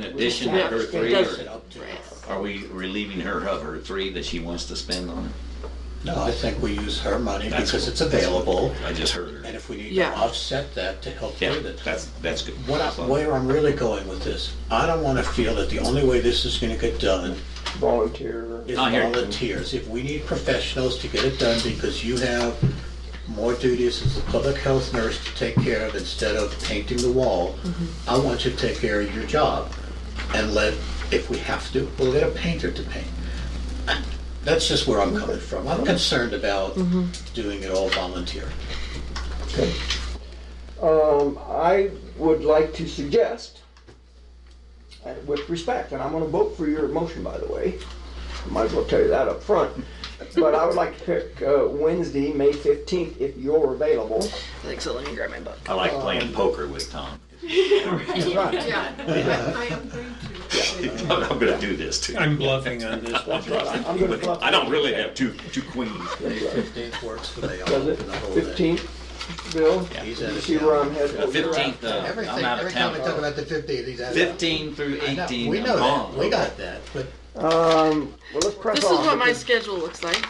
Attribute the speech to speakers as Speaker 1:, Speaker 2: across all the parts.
Speaker 1: In addition to
Speaker 2: Yeah.
Speaker 1: her three, or
Speaker 3: up to.
Speaker 1: are we relieving her of her three that she wants to spend on?
Speaker 3: No, I think we use her money
Speaker 1: That's-
Speaker 3: because it's available,
Speaker 1: I just heard
Speaker 3: and
Speaker 1: her.
Speaker 3: if we need to
Speaker 2: Yeah.
Speaker 3: offset that to help
Speaker 1: Yeah,
Speaker 3: pay the
Speaker 1: that's, that's good.
Speaker 3: What I, where I'm really going with this, I don't want to feel that the only way this is going to get done
Speaker 4: volunteer.
Speaker 3: is
Speaker 1: I hear you.
Speaker 3: volunteers. If we need professionals to get it done because you have more duties as a public health nurse to take care of instead of painting the wall,
Speaker 1: Mm-hmm.
Speaker 3: I want you to take care of your job and let, if we have to, we'll get a painter to paint. That's just where I'm coming from. I'm concerned about
Speaker 1: Mm-hmm.
Speaker 3: doing it all volunteer.
Speaker 4: Um, I would like to suggest, uh, with respect, and I'm gonna vote for your motion, by the way. Might as well tell you that up front. But I would like to pick, uh, Wednesday, May fifteenth, if you're available.
Speaker 2: Like, so let me grab my book.
Speaker 1: I
Speaker 3: uh,
Speaker 1: like playing poker with Tom.
Speaker 4: Right.
Speaker 2: Yeah, I am going to.
Speaker 1: I'm gonna do this too.
Speaker 5: I'm bluffing on this one.
Speaker 4: I'm gonna bluff.
Speaker 1: I don't really have two, two queens.
Speaker 3: Fifteenth works for me. I'll
Speaker 4: Does it?
Speaker 3: open the whole day.
Speaker 4: Fifteenth, Bill?
Speaker 3: He's
Speaker 4: You
Speaker 3: out of
Speaker 4: see where
Speaker 3: town.
Speaker 4: I'm headed? over there?
Speaker 1: Fifteenth, uh,
Speaker 3: Everything,
Speaker 1: I'm out
Speaker 3: every
Speaker 1: of
Speaker 3: time we talk
Speaker 1: town.
Speaker 3: about the fifteenth, he's out of town.
Speaker 1: Fifteen through
Speaker 3: I know,
Speaker 1: eighteen,
Speaker 3: We
Speaker 1: I'm
Speaker 3: know
Speaker 1: gone.
Speaker 3: that, we got that, but
Speaker 4: Um, well, let's press
Speaker 2: This is
Speaker 4: on.
Speaker 2: what my
Speaker 4: because-
Speaker 2: schedule looks like.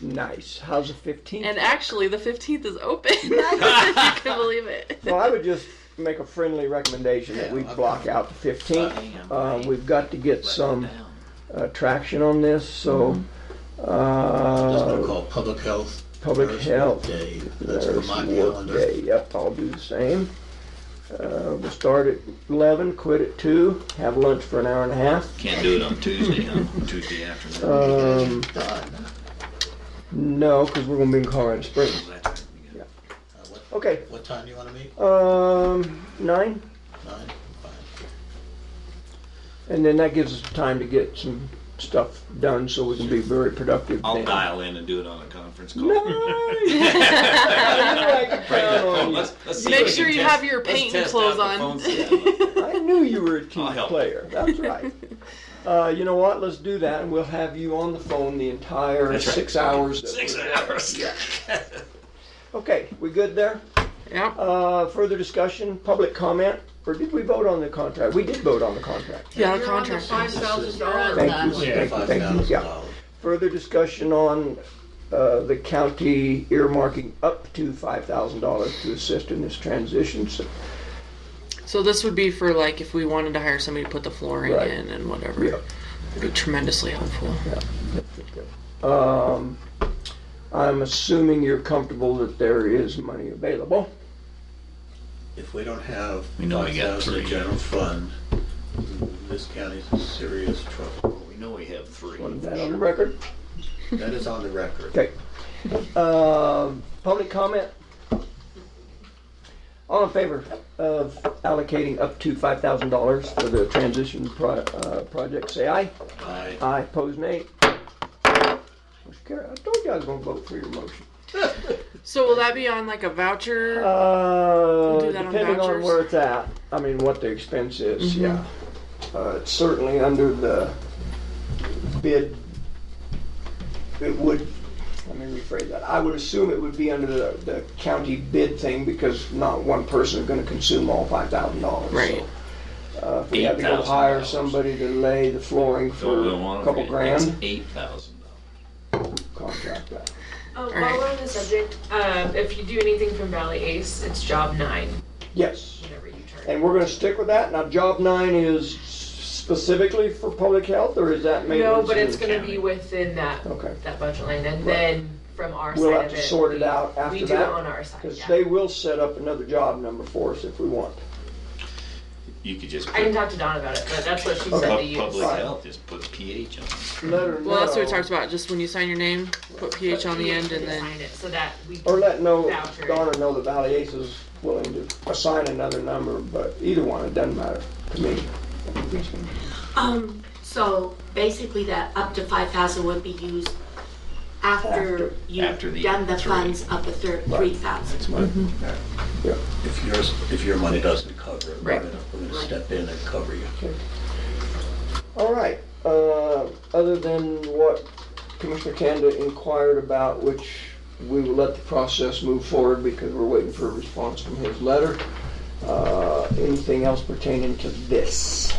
Speaker 4: Nice. How's the fifteenth?
Speaker 2: And actually, the 15th is open. if you can believe it.
Speaker 4: Well, I would just make a friendly recommendation that we
Speaker 3: Yeah, okay.
Speaker 4: block out the fifteenth.
Speaker 1: Damn,
Speaker 4: Uh,
Speaker 1: right.
Speaker 4: we've got to get some uh, traction on this, so,
Speaker 3: Mm-hmm. that's what I
Speaker 4: uh,
Speaker 3: call public health.
Speaker 4: public
Speaker 3: Nurse
Speaker 4: health.
Speaker 3: Day, that's for
Speaker 4: There's
Speaker 3: my
Speaker 4: work
Speaker 3: calendar.
Speaker 4: day, yep, I'll do the same. Uh, we'll start at eleven, quit at two, have lunch for an hour and a half.
Speaker 1: Can't do it on Tuesday, huh? Tuesday afternoon.
Speaker 4: Um,
Speaker 3: Done. Uh,
Speaker 4: no, because we're gonna be in Colorado Springs.
Speaker 1: That's right, we got-
Speaker 4: Okay,
Speaker 3: What time do you wanna meet?
Speaker 4: um, nine,
Speaker 3: Nine?
Speaker 4: and then that gives us time to get some stuff done, so we can be very productive.
Speaker 1: I'll
Speaker 4: then.
Speaker 1: dial in and do it on a conference call.
Speaker 4: No. I knew I could
Speaker 1: Break that
Speaker 4: count on
Speaker 1: phone.
Speaker 4: you.
Speaker 1: Let's- let's see
Speaker 2: Make
Speaker 1: if we
Speaker 2: sure
Speaker 1: can
Speaker 2: you
Speaker 1: test-
Speaker 2: have your
Speaker 1: let's
Speaker 2: painting
Speaker 1: test out
Speaker 2: clothes
Speaker 1: the
Speaker 2: on.
Speaker 1: phone system.
Speaker 4: I knew you were a team
Speaker 1: I'll help.
Speaker 4: player. That's right. Uh, you know what? Let's do that, and we'll have you on the phone the entire
Speaker 1: That's right.
Speaker 4: six hours. that
Speaker 1: Six
Speaker 4: we're-
Speaker 1: hours.
Speaker 4: Okay, we good there?
Speaker 2: Yep.
Speaker 4: Uh, further discussion, public comment, or did we vote on the contract? We did vote on the contract.
Speaker 2: Yeah, the contract.
Speaker 6: Five thousand dollars
Speaker 4: Thank
Speaker 6: that
Speaker 4: you.
Speaker 6: one.
Speaker 4: Thank you,
Speaker 3: Five
Speaker 4: thank
Speaker 3: thousand
Speaker 4: you. Yeah.
Speaker 3: dollars.
Speaker 4: Further discussion on uh, the county earmarking up to five thousand dollars to assist in this transition. So,
Speaker 2: So this would be for like if we wanted to hire somebody to put the flooring
Speaker 4: Right.
Speaker 2: in and whatever.
Speaker 4: yeah.
Speaker 2: It'd be tremendously helpful.
Speaker 4: Um, I'm assuming you're comfortable that there is money available.
Speaker 3: If we don't have
Speaker 1: We know we
Speaker 3: five
Speaker 1: got
Speaker 3: thousand
Speaker 1: three.
Speaker 3: in general fund, this county's in serious trouble.
Speaker 1: We know we have three.
Speaker 4: Want that on the record?
Speaker 3: That is on the record.
Speaker 4: Okay. Um, Public comment? All in favor of allocating up to $5,000 for the transition pro- uh, project, say aye.
Speaker 3: Aye.
Speaker 4: Aye, pose nay. Motion carried. I told you I was gonna vote for your motion.
Speaker 2: So will that be on like a voucher?
Speaker 4: Uh,
Speaker 2: do that on
Speaker 4: depending on
Speaker 2: vouchers? Mm-hmm.
Speaker 4: where it's at, I mean, what the expense is, yeah. Uh, it's certainly under the bid, it would, let me rephrase that, I would assume it would be under the, the county bid thing because not one person is gonna consume all five thousand dollars.
Speaker 2: Right.
Speaker 4: Uh, if we had to go
Speaker 1: $8,000.
Speaker 4: hire somebody to lay the flooring
Speaker 1: So
Speaker 4: for
Speaker 1: we want
Speaker 4: a
Speaker 1: to.
Speaker 4: couple grand,
Speaker 1: Eight thousand dollars.
Speaker 4: contract that.
Speaker 6: Um, while we're on the subject, uh, if you do anything from Valley Ace, it's job nine,
Speaker 4: Yes.
Speaker 6: whenever you turn.
Speaker 4: And we're gonna stick with that. Now, job nine is specifically for public health, or is that maintenance?
Speaker 6: No, but it's
Speaker 4: and-
Speaker 6: gonna be within that,
Speaker 4: Okay.
Speaker 6: that budget line, and then from our side of it.
Speaker 4: We'll have to sort it
Speaker 6: we-
Speaker 4: out after
Speaker 6: We do it
Speaker 4: that,
Speaker 6: on our side,
Speaker 4: Cause
Speaker 6: yeah.
Speaker 4: they will set up another job number for us if we want.
Speaker 1: You could just.
Speaker 6: I can
Speaker 1: put
Speaker 6: talk to Dawn about it, but that's what she said
Speaker 1: pub-
Speaker 6: to use.
Speaker 1: Public health, just put pH on it.
Speaker 4: Let her know.
Speaker 2: Well, that's what we talked about. Just when you sign your name, put PH on the end, and then
Speaker 6: Sign it So that we.
Speaker 4: Or let know,
Speaker 6: Voucher.
Speaker 4: Donna know that Valley Ace is willing to assign another number, but either one, it doesn't matter to me.
Speaker 7: Um, so basically that up to five thousand would be used
Speaker 4: After-
Speaker 7: after you've
Speaker 1: after the
Speaker 7: done the
Speaker 1: three.
Speaker 7: funds of the third, three thousand.
Speaker 4: Mm-hmm.
Speaker 3: If yours, if your money doesn't cover it, we're
Speaker 2: Right.
Speaker 3: gonna, we're gonna step in and cover you.
Speaker 4: All right, uh, other than what Commissioner Kanda inquired about, which we will let the process move forward because we're waiting for a response from his letter. Uh, anything else pertaining to this?